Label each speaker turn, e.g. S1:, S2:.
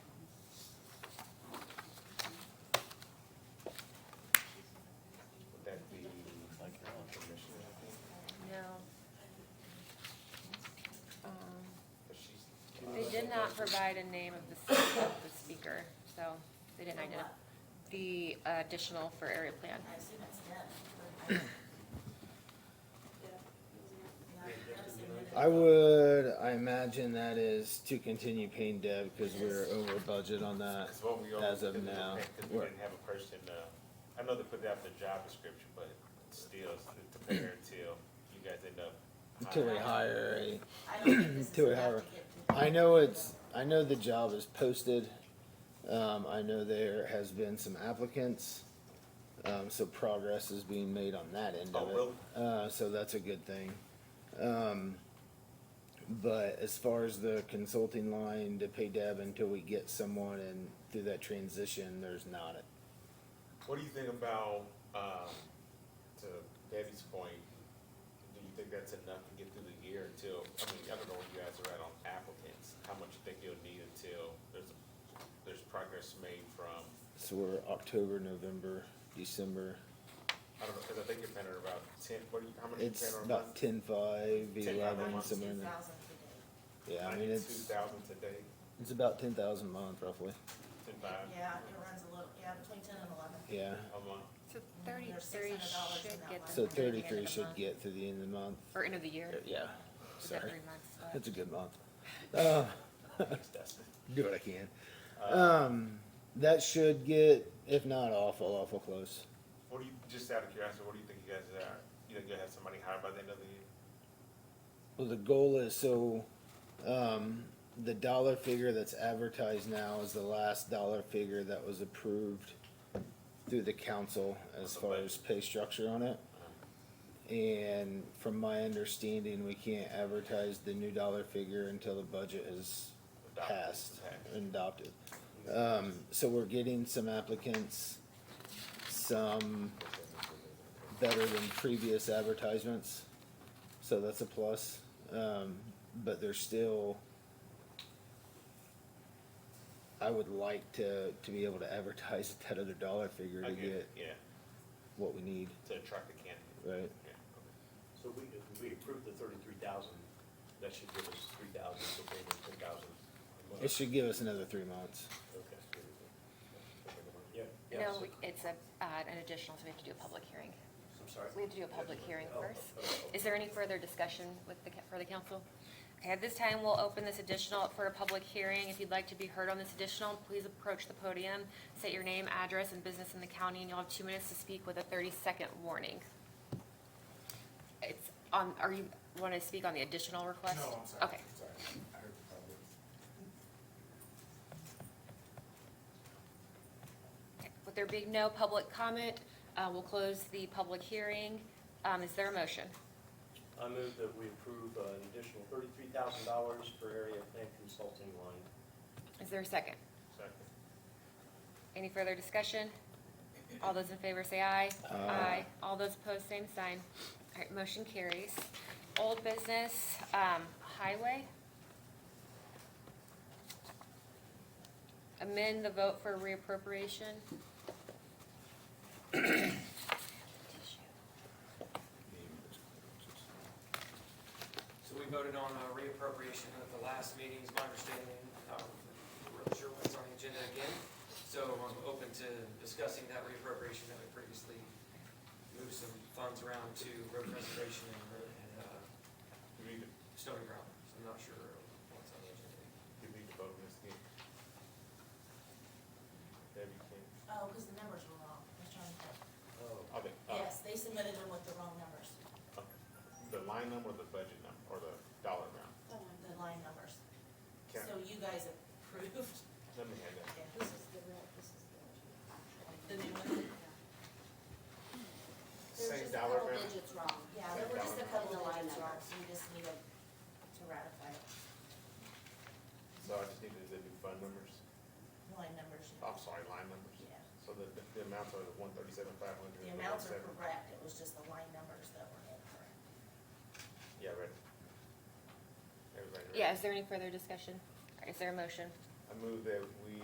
S1: Um, not provide a name of the, s- of the speaker, so they didn't identify. The additional for area plan.
S2: I assume it's them.
S3: I would, I imagine that is to continue paying Deb because we're over budget on that.
S4: That's what we
S3: As
S4: always,
S3: of
S4: because we
S3: now, we're-
S4: didn't have a person, uh, I know they put out the job description, but still, it's to prepare until you guys end up.
S3: Until we
S4: hiring.
S3: hire a,
S2: I don't think this is
S3: To
S2: enough
S3: our-
S2: to get people.
S3: I know it's, I know the job is posted. Um, I know there has been some applicants. Um, so progress is being made on that end
S4: Oh,
S3: of
S4: really?
S3: it. Uh, so that's a good thing. Um, but as far as the consulting line to pay Deb until we get someone and through that transition, there's not a
S4: What do you think about, um, to Debbie's point, do you think that's enough to get through the year until, I mean, I don't know where you guys are at on applicants, how much you think you'll need until there's, there's progress made from,
S3: So we're October, November, December.
S4: I don't know, cause I think you're planning about ten, what do you, how many? you
S3: It's
S4: planning on
S3: about
S4: months?
S3: 10,
S4: 10, months.
S3: 5, 11, somewhere in there.
S2: 92,000 today.
S3: Yeah, I mean, it's,
S4: 92,000 today,
S3: it's about 10,000 a month roughly.
S4: ten five
S2: Yeah, it runs a little, yeah, between ten and eleven.
S3: Yeah.
S4: a month.
S1: So
S2: There's
S1: thirty-three
S2: $600 in
S1: should
S2: that
S1: get. them
S2: one.
S3: So
S1: by the end of
S3: 33
S1: the
S3: should
S1: month,
S3: get to the end of the month.
S1: Or end of the year.
S3: Yeah,
S1: We've got
S3: sorry.
S1: three months left.
S3: It's a good month. Uh,
S4: Thanks, Dustin.
S3: do what I can. Um, that should get, if not awful, awful close.
S4: What do you, just out of curiosity, what do you think you guys are, you think you'll have somebody hired by the end of the year?
S3: Well, the goal is so, um, the dollar figure that's advertised now is the last dollar figure that was approved through the council as far as pay structure on it. And from my understanding, we can't advertise the new dollar figure until the budget is
S4: Adopted.
S3: passed
S4: Okay.
S3: and adopted. Um, so we're getting some applicants, some better than previous advertisements, so that's a plus. Um, but there's still, I would like to, to be able to advertise at that other dollar figure to
S4: Okay,
S3: get
S4: Yeah,
S3: what we need,
S4: to attract the candidate.
S3: right?
S4: Yeah, okay.
S5: So we, if we approve the thirty-three thousand, that should give us three thousand, so maybe ten thousand a month.
S3: It should give us another three months.
S5: Okay. Yeah. yeah,
S1: No,
S5: so-
S1: we- it's a, uh, an additional, so we have to do a public hearing.
S5: I'm sorry.
S1: We have to do a public hearing
S5: Oh,
S1: first.
S5: oh, oh.
S1: Is there any further discussion with the, ca- for the council? Okay, at this time, we'll open this additional up for a public hearing. If you'd like to be heard on this additional, please approach the podium, state your name, address, and business in the county, and you'll have two minutes to speak with a thirty-second warning. It's on, are you, want to speak on the additional request?
S6: No, I'm sorry.
S1: Okay.
S6: Sorry. I heard the public.
S1: With there being no public comment, uh, we'll close the public hearing. Um, is there a motion?
S5: I move that we approve uh, an additional thirty-three thousand dollars for area plan consulting line.
S1: Is there a second?
S4: Second.
S1: Any further discussion? All those in favor say aye. Aye. All those opposed, same sign. All right, motion carries. Old business, um, highway. Amend the vote for reappropriation.
S7: So we voted on uh, reappropriation at the last meeting, is my understanding. Um, I'm not sure what's on the agenda again. So I'm open to discussing that reappropriation that we previously moved some funds around to road preservation and road and uh,
S4: Do we need to,
S7: stone and gravel. So I'm not sure what's on the agenda.
S4: do we need to vote on this again? Debbie, can,
S2: Oh, because the numbers were wrong. I was trying to,
S5: Oh.
S4: okay, uh,
S2: yes, they submitted them with the wrong numbers,
S4: okay. the line number or the budget number, or the dollar amount?
S2: the line numbers.
S4: Can,
S2: So you guys approved.
S4: let me have that.
S2: Yeah, This is the real, this is the. new one? There's
S4: Same
S2: just a
S4: dollar
S2: couple
S4: amount?
S2: digits wrong. Yeah,
S4: Same
S2: there were just
S4: dollar
S2: a
S4: amount.
S2: couple of digits wrong, so you just need to to ratify it.
S4: So I just need to, the new fund numbers,
S2: Line numbers. you know.
S4: I'm sorry, line numbers?
S2: Yeah.
S4: So the, the- the amounts are the one thirty-seven, five hundred?
S2: The amounts are correct, it was just the line numbers that were incorrect.
S4: Yeah, right. Everybody ready?
S1: Yeah, is there any further discussion? All right, Is there a motion?
S4: I move that we